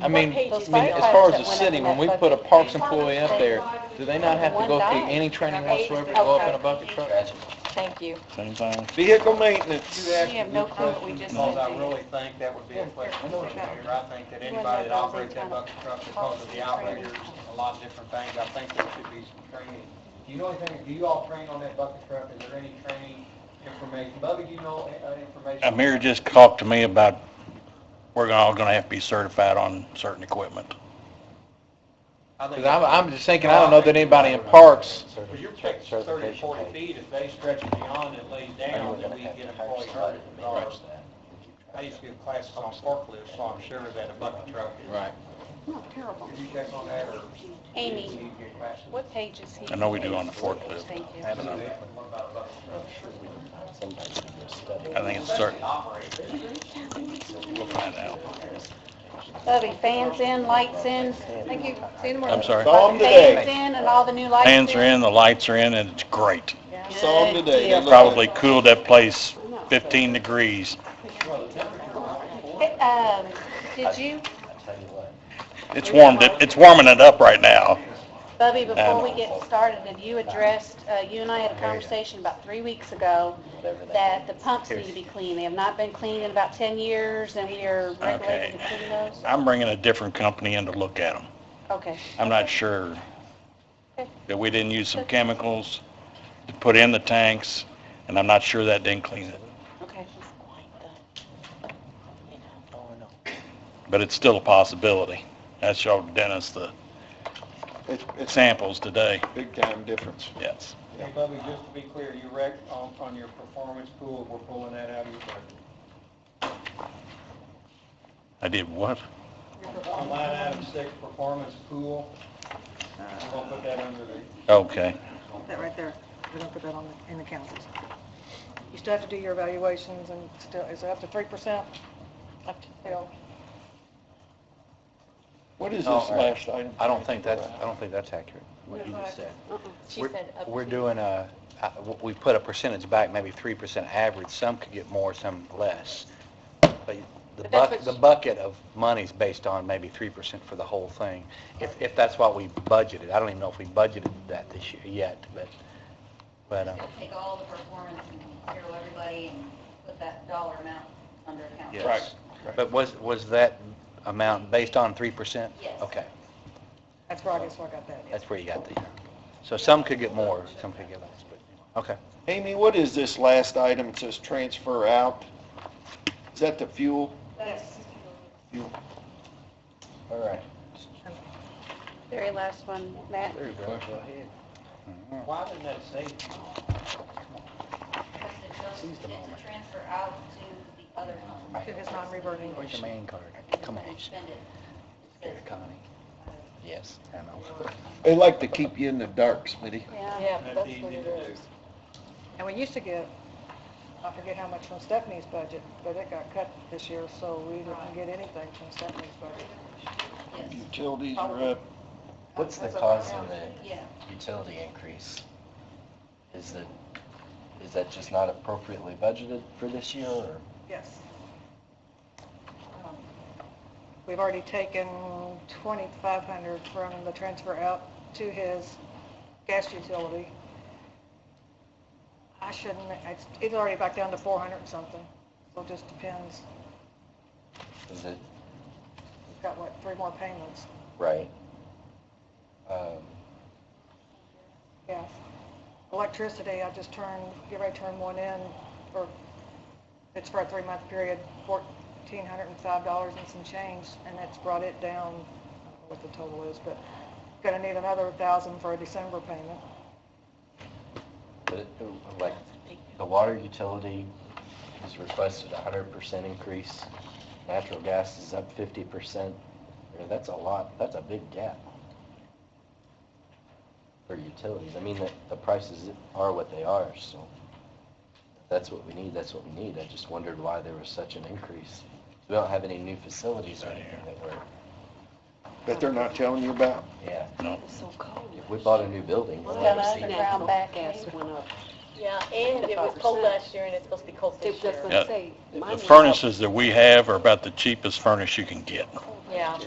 I mean, page I is mean, that? as far as the Those city, when we firefighters put a that parks employee up there, do they not have to go through any training whatsoever to go up in a bucket truck? Thank you. Same thing. Vehicle maintenance. You asked We have a no good clue what question, we just because said to I you. really think that would be a question for the mayor. I think that anybody that operates that bucket truck, because of the outriggers, a lot of different things, I think there should be some training. Do you know anything, do you all train on that bucket truck? Is there any training information? Bubby, do you know uh, information? Amir just talked to me about, we're gonna- all gonna have to be certified on certain equipment. I think- Because I'm, I'm just thinking, I don't know that anybody in parks, Well, you're taking 30 or 40 feet, if they stretch it beyond and lay down, then we get employee hurt. I used to give classes on forklifts, so I'm sure that a bucket truck is. right, Did you check on that, or? Amy, what page is he? I know we do on the forklift. Thank you. I don't know. What about a bucket truck? I think it's certain, Operator. we'll find out. Bubby, fans in, lights in, thank you, see you tomorrow. I'm sorry. Saw 'em Fans today. in and all the new lights. Fans are in, the lights are in, and it's great. Saw 'em today. They look Probably cooled that place 15 degrees. Um, did you, It's warmed, it. it's warming it up right now. Bubby, before Um, we get started, have you addressed, uh, you and I had a conversation about three weeks ago that the pumps need to be cleaned. They have not been cleaned in about 10 years and we are regulated to clean those? I'm bringing a different company in to look at them. Okay, I'm not sure that we didn't use some chemicals to put in the tanks, and I'm not sure that didn't clean it. okay. But it's still a possibility. I showed Dennis the It's, it's samples today, big time difference. yes. Hey, Bubby, just to be clear, you wreck on, on your performance pool, we're pulling that out of your budget. I did what? On line item six, performance pool, Uh, we're gonna put that under the, Okay, That right there, we're gonna put that on, the- in the councils. You still have to do your evaluations and still, is it up to three percent? Up to, you know, What is this No, last item? Oh, I don't think that's, I don't think that's accurate, what you just said. Uh-uh. She We're- said up We're to- doing a, uh, we put a percentage back, maybe 3% average, some could get more, some less. But the But that's bucket, the what- bucket of money's based on maybe 3% for the whole thing, if, if that's what we budgeted. I don't even know if we budgeted that this year yet, but, but, uh, take all the performance and zero everybody and put that dollar amount under account. yes. But was, was that amount based on 3%? Yes. Okay, that's where I guess where I got that. that's where you got the, so some could get more, some could get less, but, okay. Amy, what is this last item? It says transfer out. Is that the fuel? That's All right. Very last one, Matt. There you go. Go ahead. why didn't that say? because it goes, it's a transfer out to the other fund. To his non-reverting. Where's your man card? Come on, Spend it. here, Connie. Yes. I know. They like to keep you in the dark, Smitty. Yeah. Yeah, That's that's easy what it to do. is. And we used to get, I forget how much from Stephanie's budget, but it got cut this year, so we didn't get anything from Stephanie's budget. Yes, Utilities are up. What's the cause of the yeah. utility increase? Is it, is that just not appropriately budgeted for this year, or? Yes. Um, We've already taken 2,500 from the transfer out to his gas utility. I shouldn't, it's, it's already back down to 400 and something, so it just depends. Is it, We've got, what, three more payments? right? Um, Yeah. Electricity, I just turned, get ready to turn one in for, it's for a three-month period, fourteen hundred and five dollars and some change, and it's brought it down, I don't know what the total is, but gonna need another thousand for a December payment. the- Like, the water utility has requested a hundred percent increase, natural gas is up fifty percent. That's a lot, that's a big gap for utilities. I mean, the, the prices are what they are, so that's what we need, that's what we need. I just wondered why there was such an increase. We don't have any new facilities or anything that were, That they're not telling you about. yeah. No. If we bought a new building, It's we'd got never an see it. underground back end. Yeah, and it was cold last year and it's supposed to be cold this year. The furnaces that we have are about the cheapest furnace you can get. Yeah.